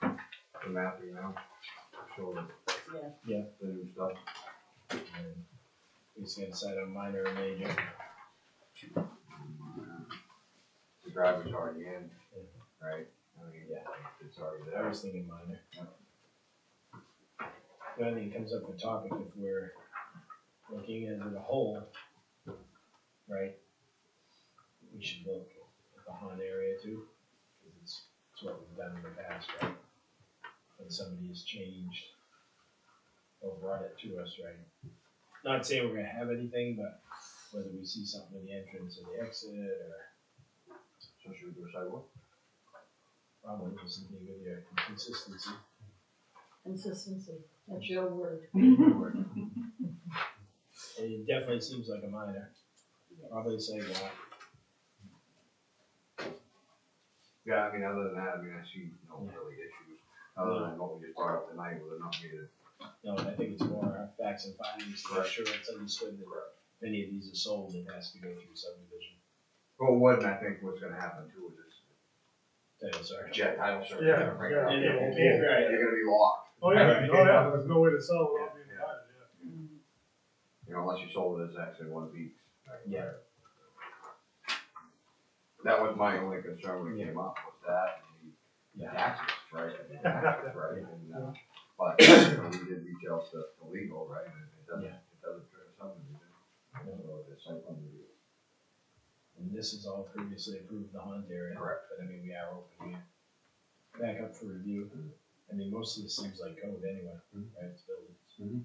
the map, you know, to show the. Yeah. The new stuff. And We just gotta decide on minor or major. The driveway's already in, Yeah. right? I mean, Yeah. it's already I there. was thinking minor. The only thing that comes up with topic if we're looking at it a whole, right? We should look at the Han area too, because it's, it's what we've done in the past, right? When somebody has changed or brought it to us, right? Not saying we're gonna have anything, but whether we see something in the entrance or the exit or So should we do a sidewalk? probably just something with your consistency. Consistency, that's your word. Mm-hmm. It definitely seems like a minor. Probably say that. Yeah, I mean, other than that, I mean, I see no really issues, other than what we just brought up tonight, with it not being No, I think it's more our facts and findings to Correct. sure it's understood that any of these are sold, it has to go through subdivision. Well, what, I think what's gonna happen too is this Title search. jet title search. Yeah, yeah. And it won't be, Yeah. right, You're gonna be locked, Oh, yeah, Alright. oh, yeah, there's no way to sell without being Yeah. invited, yeah. you know, unless you sold it as actually one of these. right? Yeah. That was my only concern when it came up, was that, and the yeah, taxes, right, and the taxes, right, and, uh, but, you know, we did retail stuff illegal, right, and it doesn't, Yeah. it doesn't trigger something, so it's like, um, and this is all previously approved, the hunt area. Correct. But I mean, we are open here. Back up for review. I mean, most of this seems like code anyway, Mhm. right, it's buildings. Mhm.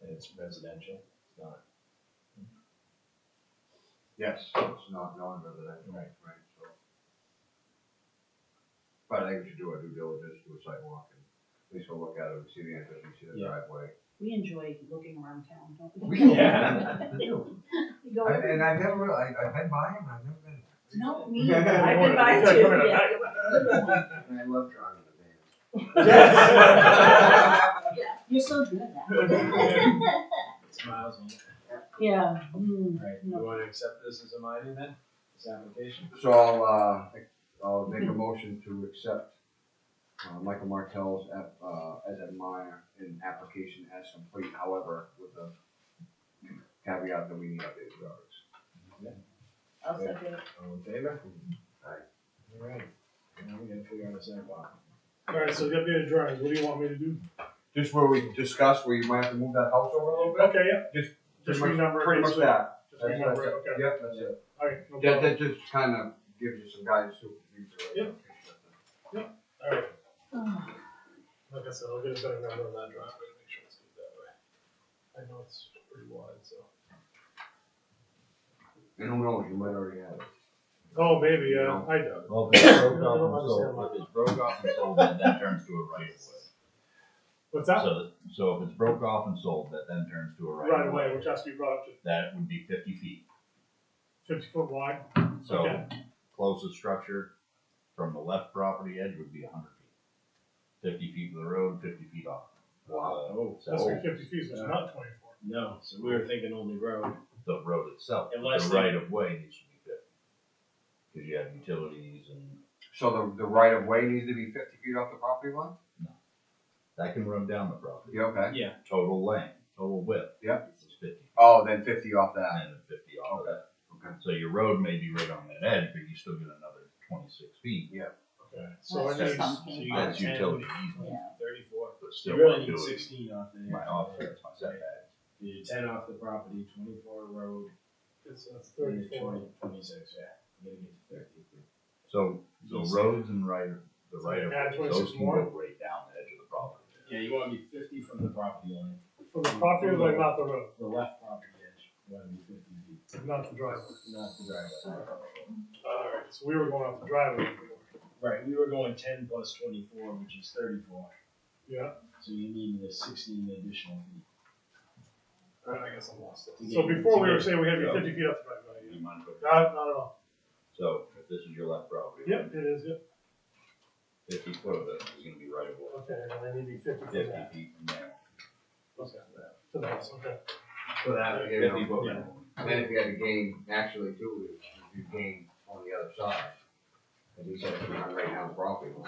And it's residential, it's not, yes, it's not non-residential, right, right, so. But I think we should do our due diligence, do a sidewalk, and at least we'll look at it, we see the entrance, we see the Yeah. driveway. We enjoy looking around town, don't we? We Yeah. do. We go I- every- And I've never, really- I, I've been by him, I've never been. No, me, either. I've been by too, yeah. And I love drawing the vans. Yeah, You're so good at that. it's miles on it. Yeah, mm, Right, you no, wanna accept this as a minor then, this application? So I'll, uh, I'll make a motion to accept, uh, Michael Martell's, app- uh, as a minor in application as complete, however, with the caveat that we need updated drawings. I'll second it. All in favor? Aye. Alright, now we gotta figure out a sidewalk. Alright, so get me the drawings, what do you want me to do? Just where we discussed, where you might have to move that house over a little bit? Okay, yeah. Just- Just renumber it. Pretty much basically. that. Just That's that's renumber it, it. okay. Yep, that's it. Alright, no That, problem. that just kind of gives you some guidance to. Yep. Alright, Oh, like I said, I'll get a better number on that drawing, but make sure it's good that way. I know it's pretty wide, so. And who knows, you might already have it. Oh, maybe, yeah, I doubt it. Well, if it's broke No, off no, and I'm sold, if it's broke off and sold, then that turns to a right of way. What's that? So, so if it's broke off and sold, that then turns to a Right right of away, way. which has to be brought up to That would be fifty feet. fifty foot wide, So Okay. closest structure from the left property edge would be hundred feet. Fifty feet of the road, fifty feet off. Wow. Oh, that's So where fifty feet, so it's not twenty-four. no, so we were thinking only road. the road itself, Unless the they- right of way needs to be fifty. Cause you have utilities and So the, the right of way needs to be fifty feet off the property line? that can run down the property. You okay? Total length, total width. Yep. Is fifty. Oh, then fifty off that. and then fifty off of that. Okay. So your road may be right on that edge, but you still get another twenty-six feet. Okay, so I That's need, something. So you got That's 10, utility easement, Yeah, Thirty-four. but still You not really need doing sixteen off there. my offsets, my setbacks. You do ten off the property, twenty-four road, it's uh, and you're thirty-four. 20 26, yeah, you gotta get to thirty. So, so roads and right, the right of, Add way, 26 those can more? go right down the edge of the property. Yeah, you wanna be fifty from the property line, From the property line, not the road, the left property edge, you wanna be fifty feet, not the driveway. not the driveway. Alright, so we were going off the driveway. Right, we were going ten plus twenty-four, which is thirty-four, Yeah, so you need the sixteen additional feet. alright, I guess I'm lost. To So get- before to we were get- saying we had to be Yeah. fifty feet off the driveway, yeah. You mind if I- Not, not at all. So, if this is your left property. Yep, it is, yep. Fifty foot of it is gonna be right of way, Okay, and I need to be fifty feet fifty back. feet from there. Okay. To the house, okay. So that, you know, Fifty foot. yeah. and then if you had to gain, naturally too, if you gain on the other side. As you said, if you're not right down the property line.